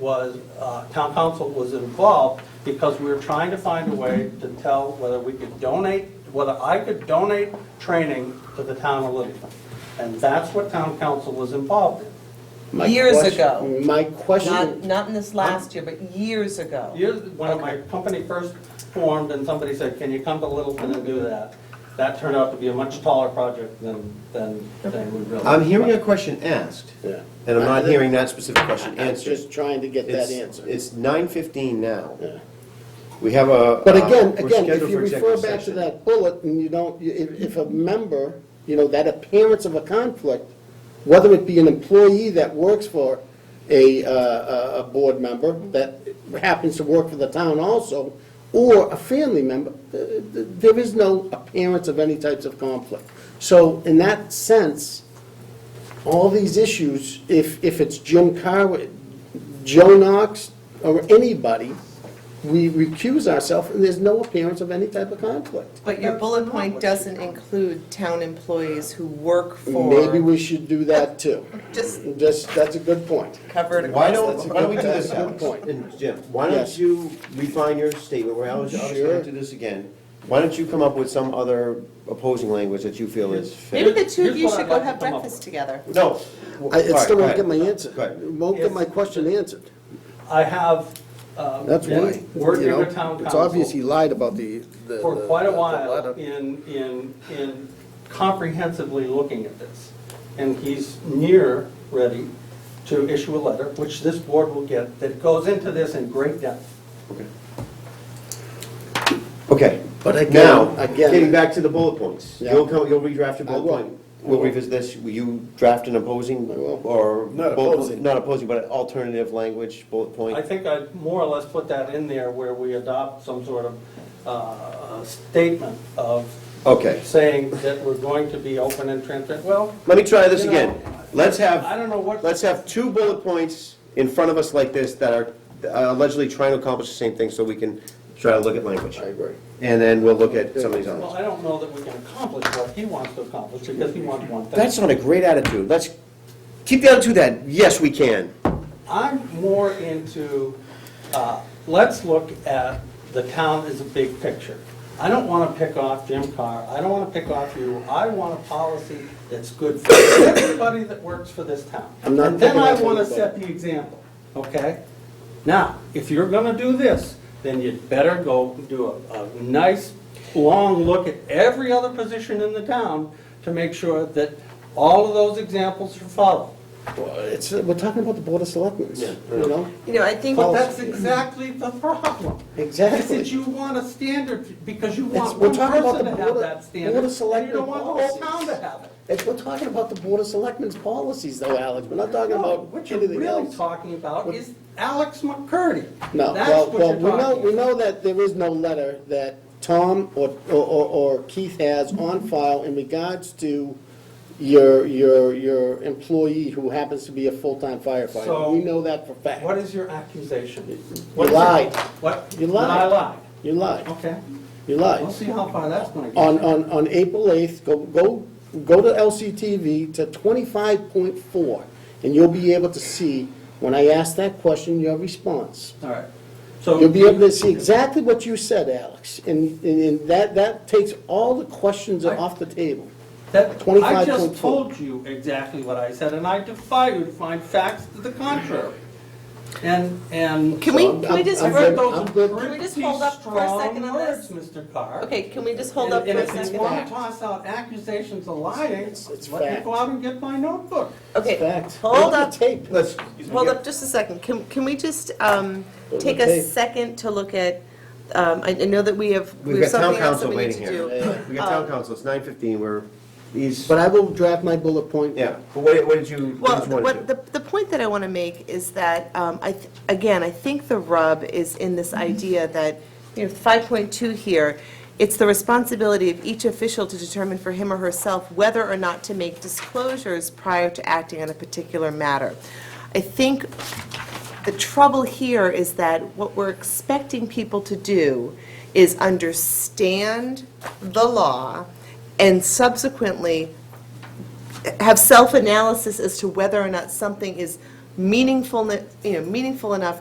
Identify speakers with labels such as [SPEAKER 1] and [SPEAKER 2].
[SPEAKER 1] was, uh, town council was involved because we were trying to find a way to tell whether we could donate, whether I could donate training to the town of Littleton. And that's what town council was involved in.
[SPEAKER 2] My
[SPEAKER 3] Years
[SPEAKER 2] question-
[SPEAKER 3] ago.
[SPEAKER 2] My
[SPEAKER 3] Not,
[SPEAKER 2] question,
[SPEAKER 3] not in this last year, but years ago.
[SPEAKER 1] Years, when my company first formed and somebody said, can you come to Littleton and do that? That turned out to be a much taller project than, than, than we realized.
[SPEAKER 4] I'm hearing a question asked,
[SPEAKER 2] Yeah.
[SPEAKER 4] and I'm not hearing that specific question
[SPEAKER 2] I'm just
[SPEAKER 4] answered.
[SPEAKER 2] trying to get that
[SPEAKER 4] It's-
[SPEAKER 2] answer.
[SPEAKER 4] It's nine fifteen now.
[SPEAKER 2] Yeah.
[SPEAKER 4] We have a.
[SPEAKER 2] But
[SPEAKER 4] uh,
[SPEAKER 2] again, again,
[SPEAKER 4] we're
[SPEAKER 2] if
[SPEAKER 4] scheduled
[SPEAKER 2] you
[SPEAKER 4] for
[SPEAKER 2] refer
[SPEAKER 4] executive
[SPEAKER 2] back to
[SPEAKER 4] session.
[SPEAKER 2] that bullet, and you don't, you- if, if a member, you know, that appearance of a conflict, whether it be an employee that works for a, uh, a, a board member that happens to work for the town also, or a family member, th- th- there is no appearance of any types of conflict. So in that sense, all these issues, if, if it's Jim Carway, Joe Knox, or anybody, we recuse ourselves, and there's no appearance of any type of conflict.
[SPEAKER 3] But your bullet point doesn't include town employees who work
[SPEAKER 2] Maybe
[SPEAKER 3] for,
[SPEAKER 2] we should do that too.
[SPEAKER 3] just
[SPEAKER 2] Just, that's a good point.
[SPEAKER 3] covered
[SPEAKER 4] Why
[SPEAKER 3] across the board.
[SPEAKER 4] don't, why don't we do this,
[SPEAKER 2] That's a good
[SPEAKER 4] Alex?
[SPEAKER 2] point.
[SPEAKER 4] And Jim, why don't
[SPEAKER 2] Yes.
[SPEAKER 4] you refine your statement, we're obviously
[SPEAKER 2] Sure.
[SPEAKER 4] gonna do this again. Why don't you come up with some other opposing language that you feel is
[SPEAKER 3] Maybe
[SPEAKER 4] fit?
[SPEAKER 3] the two
[SPEAKER 1] Here's
[SPEAKER 3] of you
[SPEAKER 1] what I'd
[SPEAKER 3] should go
[SPEAKER 1] like to
[SPEAKER 3] have
[SPEAKER 1] come up
[SPEAKER 3] breakfast
[SPEAKER 1] with.
[SPEAKER 3] together.
[SPEAKER 4] No.
[SPEAKER 2] I I still won't get my
[SPEAKER 4] Go
[SPEAKER 2] answer,
[SPEAKER 4] ahead.
[SPEAKER 2] won't get my question answered.
[SPEAKER 1] I have, um.
[SPEAKER 2] That's why,
[SPEAKER 1] been
[SPEAKER 2] you
[SPEAKER 1] Working
[SPEAKER 2] know,
[SPEAKER 1] with town council.
[SPEAKER 2] it's obvious he lied about the, the.
[SPEAKER 1] for quite a
[SPEAKER 2] the
[SPEAKER 1] while
[SPEAKER 2] letter.
[SPEAKER 1] in, in, in comprehensively looking at this. And he's near ready to issue a letter, which this board will get, that goes into this in great depth.
[SPEAKER 4] Okay.
[SPEAKER 2] But again-
[SPEAKER 4] Now,
[SPEAKER 2] again-
[SPEAKER 4] getting back to the bullet points,
[SPEAKER 2] Yeah.
[SPEAKER 4] you'll come, you'll redraft your
[SPEAKER 2] I
[SPEAKER 4] bullet
[SPEAKER 2] will.
[SPEAKER 4] point. We'll
[SPEAKER 2] I will.
[SPEAKER 4] revisit this, will you draft an opposing
[SPEAKER 2] I will.
[SPEAKER 4] or?
[SPEAKER 2] Not
[SPEAKER 4] bullet-
[SPEAKER 2] opposing.
[SPEAKER 4] Not opposing, but an alternative language bullet point?
[SPEAKER 1] I think I more or less put that in there where we adopt some sort of uh, statement of
[SPEAKER 4] Okay,
[SPEAKER 1] saying that we're going to be open and transparent. Well,
[SPEAKER 4] let me try this
[SPEAKER 1] You know,
[SPEAKER 4] again. Let's have.
[SPEAKER 1] I don't know what-
[SPEAKER 4] Let's have two bullet points in front of us like this that are uh, allegedly trying to accomplish the same thing so we can try to look at language.
[SPEAKER 2] I agree.
[SPEAKER 4] And then we'll look at some of these
[SPEAKER 1] well,
[SPEAKER 4] others.
[SPEAKER 1] I don't know that we can accomplish what he wants to accomplish because he wants one thing.
[SPEAKER 4] That's not a great attitude. Let's keep the attitude that, yes, we can.
[SPEAKER 1] I'm more into, uh, let's look at the town as a big picture. I don't want to pick off Jim Carr, I don't want to pick off you, I want a policy that's good for everybody that works for this town.
[SPEAKER 2] I'm not
[SPEAKER 1] And then
[SPEAKER 2] picking
[SPEAKER 1] I
[SPEAKER 2] off
[SPEAKER 1] want to
[SPEAKER 2] anybody.
[SPEAKER 1] set the example, okay? Now, if you're going to do this, then you'd better go do a, a nice, long look at every other position in the town to make sure that all of those examples are followed.
[SPEAKER 2] Well, It's, uh, we're talking about the board of selectmen,
[SPEAKER 4] Yeah.
[SPEAKER 2] you know?
[SPEAKER 3] You know, I think,
[SPEAKER 1] But that's exactly the problem.
[SPEAKER 2] Exactly.
[SPEAKER 1] Is that you want a standard, because you
[SPEAKER 2] It's-
[SPEAKER 1] want
[SPEAKER 2] we're
[SPEAKER 1] one
[SPEAKER 2] talking about
[SPEAKER 1] person
[SPEAKER 2] the
[SPEAKER 1] to
[SPEAKER 2] Board
[SPEAKER 1] have
[SPEAKER 2] of-
[SPEAKER 1] that standard, and
[SPEAKER 2] Board of
[SPEAKER 1] you don't
[SPEAKER 2] Selectmen
[SPEAKER 1] want the whole town
[SPEAKER 2] policies.
[SPEAKER 1] to have it.
[SPEAKER 2] If we're talking about the board of selectmen's policies though, Alex, we're not talking
[SPEAKER 1] No,
[SPEAKER 2] about
[SPEAKER 1] what you're
[SPEAKER 2] anything
[SPEAKER 1] really
[SPEAKER 2] else.
[SPEAKER 1] talking about
[SPEAKER 2] What-
[SPEAKER 1] is Alex McCurdy.
[SPEAKER 2] No,
[SPEAKER 1] That's
[SPEAKER 2] well,
[SPEAKER 1] what
[SPEAKER 2] well,
[SPEAKER 1] you're
[SPEAKER 2] we know,
[SPEAKER 1] talking
[SPEAKER 2] we
[SPEAKER 1] about.
[SPEAKER 2] know that there is no letter that Tom or, or- or, or Keith has on file in regards to your, your, your employee who happens to be a full-time
[SPEAKER 1] So-
[SPEAKER 2] firefighter. We know that for fact.
[SPEAKER 1] What is your accusation? What is it?
[SPEAKER 2] lied.
[SPEAKER 1] What?
[SPEAKER 2] You lied.
[SPEAKER 1] That I lied.
[SPEAKER 2] You lied,
[SPEAKER 1] Okay,
[SPEAKER 2] you lied.
[SPEAKER 1] we'll see how far that's gonna get.
[SPEAKER 2] on, on, on April 8th, go, go, go to LCTV to 25.4, and you'll be able to see, when I ask that question, your response.
[SPEAKER 1] All right, so.
[SPEAKER 2] You'll be able to see exactly what you said, Alex, and, and- and that, that takes all the questions off the table.
[SPEAKER 1] That, I just
[SPEAKER 2] 25.4.
[SPEAKER 1] told you exactly what I said, and I defy you to find facts to the contrary. And, and.
[SPEAKER 3] Can we-
[SPEAKER 1] So,
[SPEAKER 3] can we just-
[SPEAKER 1] I've read
[SPEAKER 2] I'm
[SPEAKER 1] those
[SPEAKER 2] good.
[SPEAKER 3] Can we just hold up for a
[SPEAKER 1] pretty
[SPEAKER 3] second on
[SPEAKER 1] strong words,
[SPEAKER 3] this?
[SPEAKER 1] Mr. Carr.
[SPEAKER 3] okay, can we just hold
[SPEAKER 1] And-
[SPEAKER 3] up for a
[SPEAKER 1] And if
[SPEAKER 3] second?
[SPEAKER 1] you want to toss out accusations of lying,
[SPEAKER 2] It's- it's
[SPEAKER 1] let me
[SPEAKER 2] fact.
[SPEAKER 1] go out and get my notebook.
[SPEAKER 3] Okay,
[SPEAKER 2] Fact.
[SPEAKER 3] hold
[SPEAKER 2] Look at
[SPEAKER 3] up,
[SPEAKER 2] the tape.
[SPEAKER 4] Let's,
[SPEAKER 3] hold up just a second. Can, can we just, um,
[SPEAKER 2] Hold
[SPEAKER 3] take
[SPEAKER 2] the
[SPEAKER 3] a
[SPEAKER 2] tape.
[SPEAKER 3] second to look at, um, I, I know that we have, we
[SPEAKER 4] we've
[SPEAKER 3] have
[SPEAKER 4] got town
[SPEAKER 3] something else that
[SPEAKER 4] council
[SPEAKER 3] we need
[SPEAKER 4] waiting
[SPEAKER 3] to do. Um,
[SPEAKER 4] here. We've got town council, it's nine fifteen, we're, these,
[SPEAKER 2] But I will draft my bullet point.
[SPEAKER 4] yeah, but what what did you, what
[SPEAKER 3] Well,
[SPEAKER 4] did you want
[SPEAKER 3] what,
[SPEAKER 4] to
[SPEAKER 3] the, the point that I want to make is that, um, I, th- again, I think the rub is in this idea that, you know, five point two here, it's the responsibility of each official to determine for him or herself whether or not to make disclosures prior to acting on a particular matter. I think the trouble here is that what we're expecting people to do is understand the law and subsequently have self-analysis as to whether or not something is meaningful, you know, meaningful enough